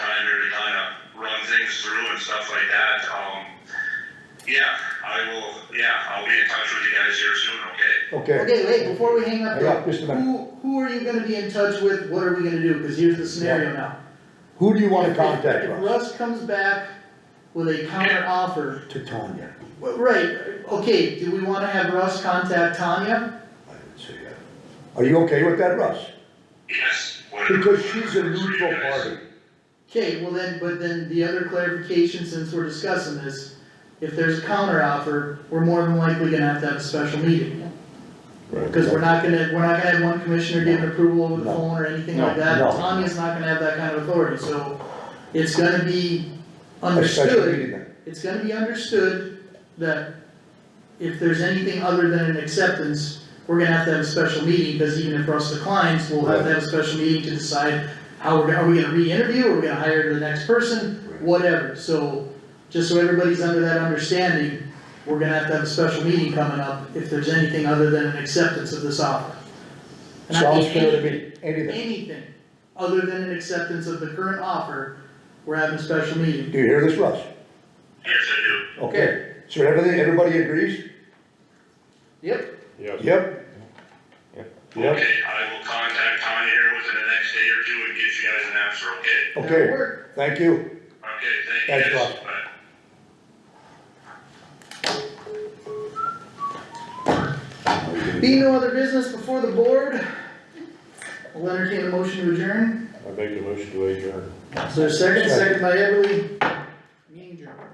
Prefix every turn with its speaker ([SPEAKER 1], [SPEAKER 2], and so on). [SPEAKER 1] things through and stuff like that, um, yeah, I will, yeah, I'll be in touch with you guys here soon, okay?
[SPEAKER 2] Okay,
[SPEAKER 3] Okay, wait, before we hang up
[SPEAKER 2] hang on
[SPEAKER 3] there,
[SPEAKER 2] just a minute.
[SPEAKER 3] who, who are you gonna be in touch with, what are we gonna do, cause here's the scenario now.
[SPEAKER 2] Who do you wanna
[SPEAKER 3] If-
[SPEAKER 2] contact,
[SPEAKER 3] If
[SPEAKER 2] Russ?
[SPEAKER 3] Russ comes back with a counter offer,
[SPEAKER 2] To Tanya,
[SPEAKER 3] well, right, okay, do we wanna have Russ contact Tanya?
[SPEAKER 2] I would say that. Are you okay with that, Russ?
[SPEAKER 1] Yes, whatever.
[SPEAKER 2] Because she's a
[SPEAKER 1] works for you
[SPEAKER 2] neutral
[SPEAKER 1] guys.
[SPEAKER 2] party.
[SPEAKER 3] Okay, well then, but then the other clarification, since we're discussing this, if there's a counter offer, we're more than likely gonna have to have a special meeting. Cause we're not gonna, we're not gonna have one commissioner giving approval over the
[SPEAKER 2] No.
[SPEAKER 3] phone or anything like
[SPEAKER 2] No,
[SPEAKER 3] that,
[SPEAKER 2] no.
[SPEAKER 3] Tanya's not gonna have that kind of authority, so it's gonna be
[SPEAKER 2] A special
[SPEAKER 3] understood
[SPEAKER 2] meeting then.
[SPEAKER 3] it's gonna be understood that if there's anything other than an acceptance, we're gonna have to have a special meeting, because even if Russ declines, we'll have to have a special meeting to decide how we're, gonna- are we gonna re-interview, are we gonna hire the next person,
[SPEAKER 2] Right.
[SPEAKER 3] whatever, so, just so everybody's under that understanding, we're gonna have to have a special meeting coming up, if there's anything other than an acceptance of this offer. And I
[SPEAKER 2] Sounds
[SPEAKER 3] think
[SPEAKER 2] fair to me, anything.
[SPEAKER 3] Anything, other than an acceptance of the current offer, we're having a special meeting.
[SPEAKER 2] Do you hear this, Russ?
[SPEAKER 1] Yes, I do.
[SPEAKER 2] Okay, so everything, everybody agrees?
[SPEAKER 3] Yep.
[SPEAKER 2] Yep. Yep,
[SPEAKER 1] Okay, I will contact Tanya here within the next day or two and give you guys an answer, okay?
[SPEAKER 2] okay, thank you.
[SPEAKER 1] Okay, thank
[SPEAKER 2] Thanks,
[SPEAKER 1] you guys,
[SPEAKER 2] Rob.
[SPEAKER 1] bye.
[SPEAKER 3] Be no other business before the board, I'll entertain a motion to adjourn.
[SPEAKER 4] I make a motion to adjourn.
[SPEAKER 3] So second, second by Everly,